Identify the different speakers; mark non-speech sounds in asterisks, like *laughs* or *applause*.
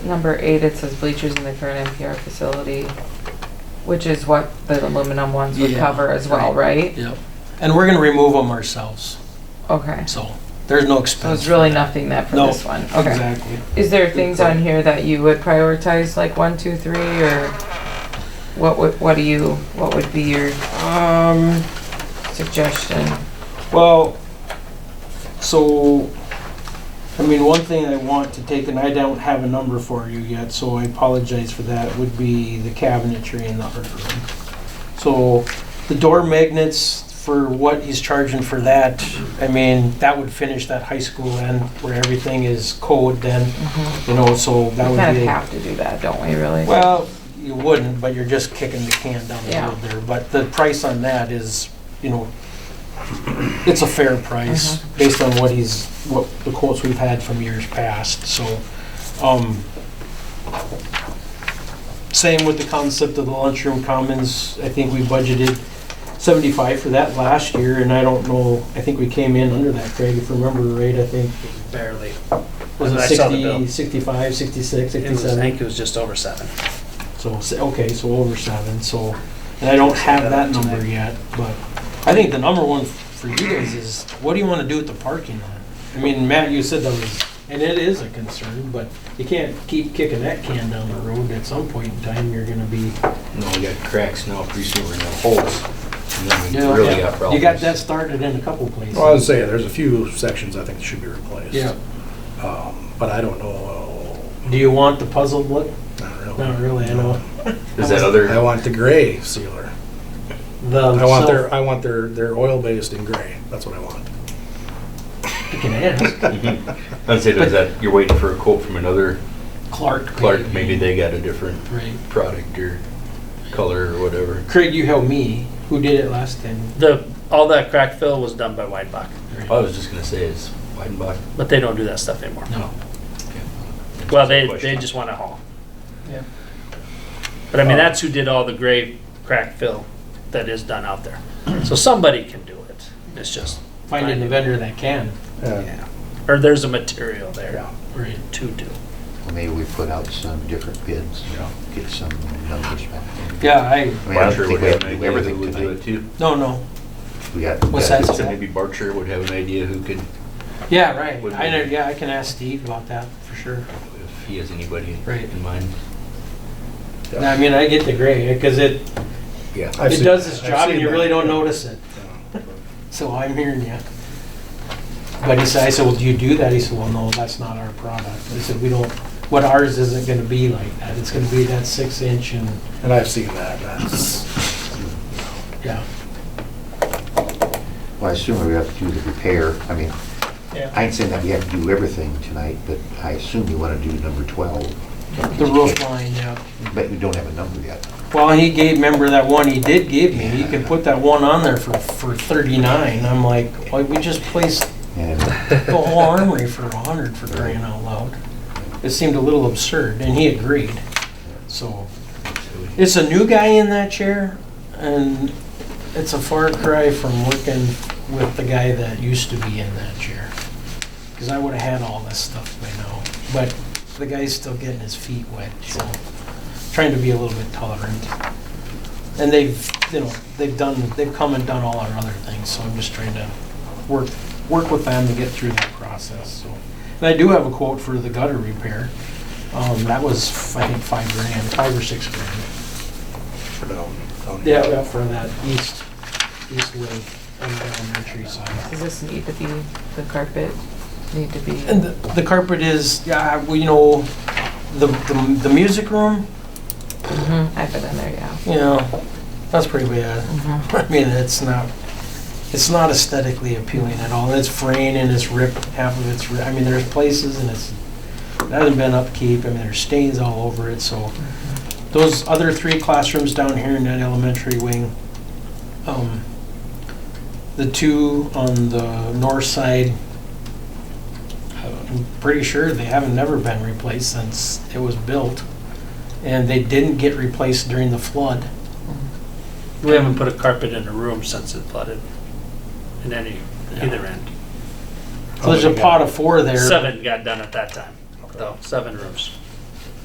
Speaker 1: Number eight, it says bleachers in the current NPR facility, which is what the aluminum ones would
Speaker 2: Yeah,
Speaker 1: cover as well, right?
Speaker 2: Yep. And we're going to remove them ourselves,
Speaker 1: Okay,
Speaker 2: so there's no
Speaker 1: so
Speaker 2: expense.
Speaker 1: it's really nothing that for
Speaker 2: No,
Speaker 1: this one, okay.
Speaker 2: Exactly.
Speaker 1: Is there things on here that you would prioritize, like one, two, three, or what would, what do you, what would be your
Speaker 2: Um,
Speaker 1: suggestion?
Speaker 2: well, so, I mean, one thing I want to take, and I don't have a number for you yet, so I apologize for that, would be the cabinetry in the art room. So the door magnets, for what he's charging for that, I mean, that would finish that high school end where everything is code then,
Speaker 1: Mhm.
Speaker 2: you know, so
Speaker 1: We
Speaker 2: Mm-hmm. that would be.
Speaker 1: kind of have to do that, don't we, really?
Speaker 2: Well, you wouldn't, but you're just kicking the can down the
Speaker 1: Yeah.
Speaker 2: road there. But the price on that is, you know, it's a fair price based on what he's, what the quotes we've had from years past, so. um, Same with the concept of the lunchroom commons. I think we budgeted 75 for that last year, and I don't know, I think we came in under that, Craig, if I remember right, I think.
Speaker 3: Barely.
Speaker 2: Was it
Speaker 3: I saw the bill.
Speaker 2: 60, 65, 66,
Speaker 3: It was, I
Speaker 2: 67?
Speaker 3: think it was just over seven.
Speaker 2: So, s- okay, so over seven, so, and I don't have that number yet, but I think the number one for you guys is, what do you wanna do with the parking lot? I mean, Matt, you said that was, and it is a concern, but you can't keep kicking that can down the road. At some point in time, you're gonna be.
Speaker 4: No, we got cracks now, pretty soon we're gonna have holes, and then we really got problems.
Speaker 2: You got that started in a couple places.
Speaker 5: Well, I was saying, there's a few sections I think that should be replaced.
Speaker 2: Yeah,
Speaker 5: Um, But I don't know,
Speaker 2: do you want the puzzled look?
Speaker 5: I don't know.
Speaker 2: Not really, I know.
Speaker 4: Is that
Speaker 5: I
Speaker 4: other,
Speaker 5: want the gray sealer.
Speaker 2: The
Speaker 5: I want
Speaker 2: self-
Speaker 5: their, I want their, their oil-based in gray, that's what I want.
Speaker 2: You can ask
Speaker 4: I'd say there's that, you're waiting for a quote from another
Speaker 2: Clark.
Speaker 4: Clark, maybe they got a different
Speaker 2: Right.
Speaker 4: product or color or whatever.
Speaker 2: Craig, you helped me. Who did it last time?
Speaker 3: The, all that crack fill was done by Weidbach,
Speaker 4: I was just gonna say is Weidenbach.
Speaker 3: but they don't do that stuff anymore.
Speaker 2: No.
Speaker 3: Well, they, they just want to haul.
Speaker 2: Yeah.
Speaker 3: But I mean, that's who did all the gray crack fill that is done out there. So somebody can do it. It's just,
Speaker 2: Finding the vendor that can.
Speaker 5: Yeah.
Speaker 3: yeah. Or there's a material there
Speaker 5: Yeah.
Speaker 2: Right.
Speaker 3: to do.
Speaker 6: Maybe we put out some different bids, you know, get some numbers back.
Speaker 2: Yeah, I,
Speaker 6: I mean, I don't
Speaker 4: Barcher
Speaker 6: think
Speaker 4: would
Speaker 6: we
Speaker 4: have
Speaker 6: have
Speaker 4: an
Speaker 6: to do
Speaker 4: idea who
Speaker 6: everything
Speaker 4: would do it
Speaker 6: tonight.
Speaker 4: too.
Speaker 2: no, no.
Speaker 6: We got, we
Speaker 2: What's
Speaker 6: got-
Speaker 2: that?
Speaker 4: So maybe Barcher would have an idea who could,
Speaker 2: Yeah, right.
Speaker 4: Would
Speaker 2: I
Speaker 4: we-
Speaker 2: know, yeah, I can ask Steve about that for sure.
Speaker 4: if he has anybody
Speaker 2: Right.
Speaker 4: in mind.
Speaker 2: No, I mean, I get the gray because it,
Speaker 4: Yeah.
Speaker 5: I've
Speaker 2: it
Speaker 5: seen-
Speaker 2: does its
Speaker 5: I've
Speaker 2: job and
Speaker 5: seen
Speaker 2: you
Speaker 5: that.
Speaker 2: really don't notice it. So I'm hearing you. But he said, I said, well, do you do that? He said, well, no, that's not our product. I said, we don't, what ours isn't gonna be like that. It's gonna be that six inch and,
Speaker 5: And I've seen that, that's,
Speaker 2: yeah.
Speaker 6: well, I assume we have to do the repair. I mean, I ain't saying that we have to do everything tonight, but I assume you want to do number 12.
Speaker 2: The roof line, yeah.
Speaker 6: But we don't have a number yet.
Speaker 2: Well, he gave, remember that one he did give me? You can put that one on there for, for thirty-nine. I'm like, well, we just placed *laughs*
Speaker 6: And
Speaker 2: the whole armory for a hundred for crying out loud. It seemed a little absurd, and he agreed. So, it's a new guy in that chair, and it's a far cry from working with the guy that used to be in that chair. Because I would have had all this stuff by now, but the guy's still getting his feet wet, so trying to be a little bit tolerant. And they've, you know, they've done, they've come and done all our other things, so I'm just trying to work, work with them to get through that process, so. And I do have a quote for the gutter repair. Um, that was, I think, five grand, five or six grand.
Speaker 5: for down, down
Speaker 2: Yeah,
Speaker 5: here.
Speaker 2: yeah, for that east, east wing on the elementary side.
Speaker 1: Does this need to be, the carpet need to be?
Speaker 2: And the- the carpet is, yeah, well, you know, the, the, the music room,
Speaker 1: Mhm, I've been in there, yeah.
Speaker 2: you know, that's pretty bad.
Speaker 1: Mhm.
Speaker 2: *laughs* I mean, it's not, it's not aesthetically appealing at all. It's fraying and it's ripped, half of it's, ri- I mean, there's places and it's, it hasn't been upkeep, I mean, there's stains all over it, so. Those other three classrooms down here in that elementary wing, um, the two on the north side, I'm pretty sure they haven't never been replaced since it was built. And they didn't get replaced during the flood.
Speaker 3: We haven't put a carpet in a room since it flooded in any, either end.
Speaker 2: So there's a pot of four there.
Speaker 3: Seven got done at that time, though, seven rooms.